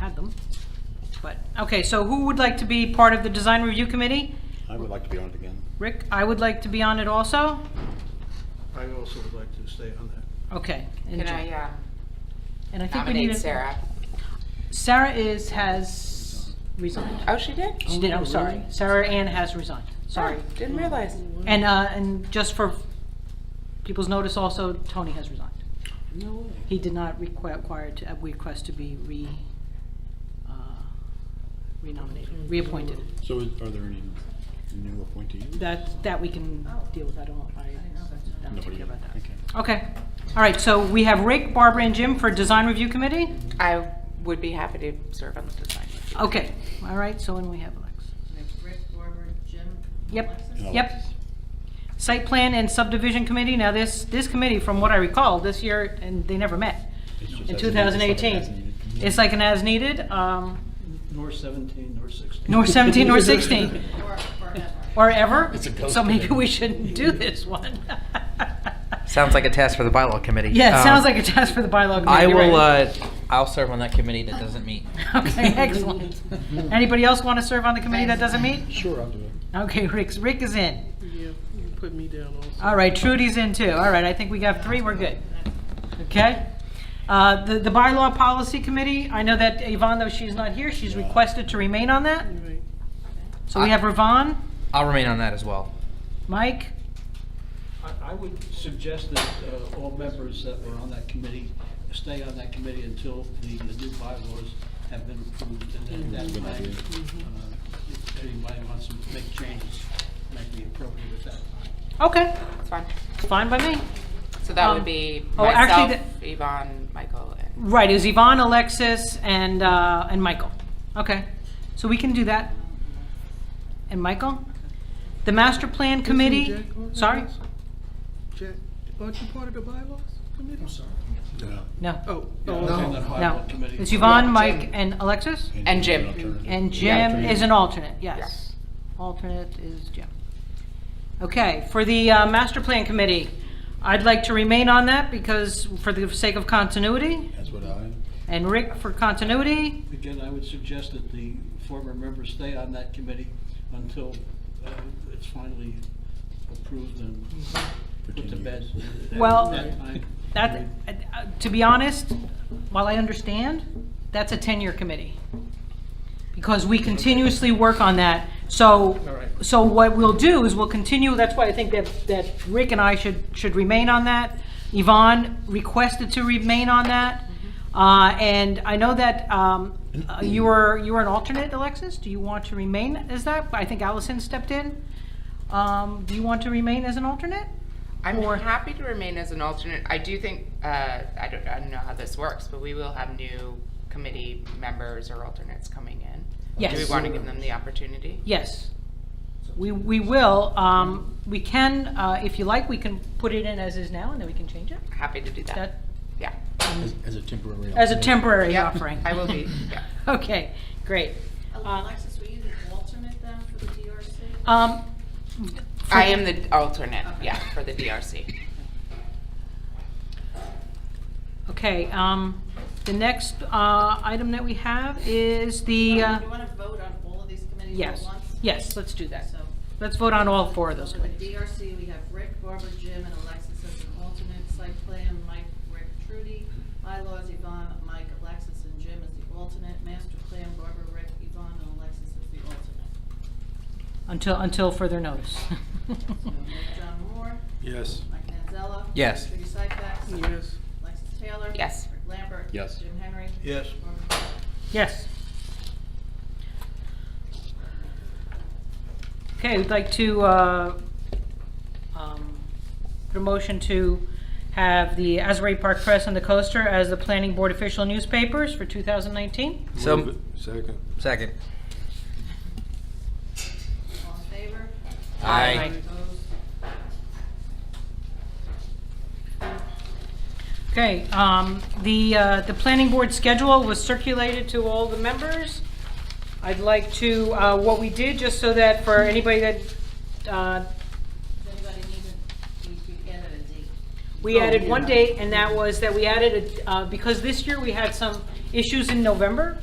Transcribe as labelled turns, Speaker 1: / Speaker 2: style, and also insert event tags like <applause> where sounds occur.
Speaker 1: welcome. But, okay, so who would like to be part of the design review committee?
Speaker 2: I would like to be on it again.
Speaker 1: Rick, I would like to be on it also?
Speaker 3: I also would like to stay on that.
Speaker 1: Okay. and
Speaker 4: Can
Speaker 1: Jim.
Speaker 4: I uh,
Speaker 1: And I think we need
Speaker 4: nominate
Speaker 1: a-
Speaker 4: Sarah?
Speaker 1: Sarah is, has resigned.
Speaker 4: Oh, she did?
Speaker 1: She did, I'm sorry. Sarah Ann has resigned.
Speaker 4: Sorry,
Speaker 1: Sorry.
Speaker 2: Oh.
Speaker 4: didn't realize.
Speaker 1: And, uh, and just for people's notice also, Tony has resigned.
Speaker 2: No way.
Speaker 1: He did not require, require to, uh, request to be re, uh, renominated, reappointed.
Speaker 2: So is- are there any new appointees?
Speaker 1: That, that we can deal with, I don't, Oh. I don't
Speaker 2: Nobody-
Speaker 1: care about that.
Speaker 2: okay.
Speaker 1: Okay, all right, so we have Rick, Barbara, and Jim for Design Review Committee?
Speaker 4: I would be happy to serve on the design.
Speaker 1: Okay, all right, so when we have Alexis.
Speaker 5: We have Rick, Barbara, Jim,
Speaker 1: Yep,
Speaker 5: Alexis?
Speaker 2: No.
Speaker 1: yep. Site Plan and Subdivision Committee, now this, this committee, from what I recall, this year, and they never met
Speaker 2: It's just
Speaker 1: in
Speaker 2: as needed, it's like an
Speaker 1: 2018.
Speaker 2: as-needed
Speaker 1: It's like an as-needed, um,
Speaker 3: Nor 17, nor 16.
Speaker 1: nor 17, nor <laughs> 16.
Speaker 5: Or, or Emma.
Speaker 1: or ever.
Speaker 2: It's a ghost
Speaker 1: So maybe
Speaker 2: committee.
Speaker 1: we shouldn't do this one. <laughs>
Speaker 6: Sounds like a task for the bylaw committee.
Speaker 1: Yeah, it
Speaker 6: Um,
Speaker 1: sounds like a task for the bylaw
Speaker 6: I
Speaker 1: committee.
Speaker 6: will,
Speaker 1: right.
Speaker 6: uh, I'll serve on that committee that doesn't meet.
Speaker 1: <laughs>
Speaker 6: <laughs>
Speaker 1: Okay, excellent. Anybody else want to serve on the committee that doesn't meet?
Speaker 2: Sure, I'll do it.
Speaker 1: Okay, Rick, Rick is in.
Speaker 7: Yeah, you can put me down also.
Speaker 1: All right, Trudy's in too. All right, I think we got three, we're good. Okay? Uh, The the bylaw policy committee, I know that Yvonne, though she's not here, she's requested to remain on that.
Speaker 7: Anyway,
Speaker 1: So we have Ravon,
Speaker 6: I'll remain on that as well.
Speaker 1: Mike,
Speaker 3: I, I would suggest that uh, all members that were on that committee stay on that committee until the the new bylaws have been approved, and then at that
Speaker 2: Good
Speaker 3: time,
Speaker 2: idea.
Speaker 3: uh, if anybody wants to make changes, might be appropriate at that time.
Speaker 1: okay,
Speaker 4: It's fine.
Speaker 1: fine by me.
Speaker 4: So that
Speaker 1: Um,
Speaker 4: would be
Speaker 1: oh, actually
Speaker 4: myself, Yvonne, Michael, and
Speaker 1: Right, is Yvonne, Alexis, and, uh, and Michael. Okay, so we can do that. And Michael? The master plan committee?
Speaker 7: Jack on that
Speaker 1: Sorry?
Speaker 7: also? Jack, aren't you part of the bylaws committee? I'm sorry.
Speaker 2: Yeah.
Speaker 1: No,
Speaker 7: Oh,
Speaker 3: Yeah, I was on
Speaker 7: oh,
Speaker 3: that
Speaker 1: no.
Speaker 3: bylaw committee.
Speaker 1: It's Yvonne,
Speaker 4: Yeah,
Speaker 1: Mike,
Speaker 4: Jim.
Speaker 1: and Alexis?
Speaker 4: And Jim.
Speaker 2: alternative.
Speaker 1: And
Speaker 4: Yeah.
Speaker 1: Jim is an alternate, yes.
Speaker 4: Yes.
Speaker 1: Alternate is Jim. Okay, for the uh, master plan committee, I'd like to remain on that because, for the sake of continuity,
Speaker 2: That's what I,
Speaker 1: and Rick for continuity.
Speaker 3: Again, I would suggest that the former members stay on that committee until uh, it's finally approved and
Speaker 2: for
Speaker 3: put to
Speaker 2: 10
Speaker 3: bed.
Speaker 2: years.
Speaker 3: At
Speaker 1: Well,
Speaker 3: that time,
Speaker 1: That, uh, to be honest, while I understand, that's a 10-year committee. Because we continuously work on that. So,
Speaker 3: right.
Speaker 1: so what we'll do is we'll continue, that's why I think that, that Rick and I should, should remain on that. Yvonne requested to remain on that. Uh, And I know that um, uh, you were, you were an alternate, Alexis? Do you want to remain as that? I think Allison stepped in. Um, Do you want to remain as an alternate?
Speaker 4: I'm happy to remain as an alternate. I do think, uh, I don't, I don't know how this works, but we will have new committee members or alternates coming in. Do we
Speaker 1: Yes.
Speaker 4: want to give them the opportunity?
Speaker 1: Yes. We, we will. Um, We can, uh, if you like, we can put it in as is now, and then we can change it.
Speaker 4: Happy to do
Speaker 1: That-
Speaker 4: that. Yeah.
Speaker 2: As- As a temporary.
Speaker 1: As a
Speaker 2: alternative.
Speaker 1: temporary
Speaker 4: Yeah,
Speaker 1: offering.
Speaker 4: I will be, yeah.
Speaker 1: <laughs> Okay, great.
Speaker 5: Alexis, were you the alternate then for the DRC?
Speaker 1: Um,
Speaker 4: I am the alternate, yeah, for the DRC.
Speaker 1: Okay, um, the next uh, item that we have is the, uh,
Speaker 5: You want to vote on all of these committees at
Speaker 1: yes,
Speaker 5: once?
Speaker 1: yes, let's do that.
Speaker 5: So,
Speaker 1: Let's vote on all four of those
Speaker 5: so for the
Speaker 1: committees.
Speaker 5: DRC, we have Rick, Barbara, Jim, and Alexis as an alternate. Site plan, Mike, Rick, Trudy. Bylaws, Yvonne, Mike, Alexis, and Jim as the alternate. Master plan, Barbara, Rick, Yvonne, and Alexis as the alternate.
Speaker 1: Until, until further notice.
Speaker 5: <laughs> So Rick, John Moore,
Speaker 3: Yes.
Speaker 5: Mike Manzella.
Speaker 6: Yes.
Speaker 5: Trudy Seifert.
Speaker 7: yes.
Speaker 5: Alexis Taylor?
Speaker 4: Yes.
Speaker 5: Rick Lambert?
Speaker 2: Yes.
Speaker 5: Jim Henry?
Speaker 3: Yes.
Speaker 5: Barbara Tuck?
Speaker 1: Yes. Okay, we'd like to, uh, um, put a motion to have the Asbury Park Press and the Coaster as the planning board official newspapers for 2019.
Speaker 6: So,
Speaker 8: Second.
Speaker 6: second.
Speaker 5: All in favor?
Speaker 1: Aye.
Speaker 5: Opposed?
Speaker 1: Okay, um, the, uh, the planning board schedule was circulated to all the members. I'd like to, uh, what we did, just so that for anybody that, uh,
Speaker 5: Does anybody need to, we we added a date.
Speaker 1: We
Speaker 7: Oh,
Speaker 1: added one
Speaker 7: yeah.
Speaker 1: date, and that was that we added, a- uh, because this year we had some issues in November,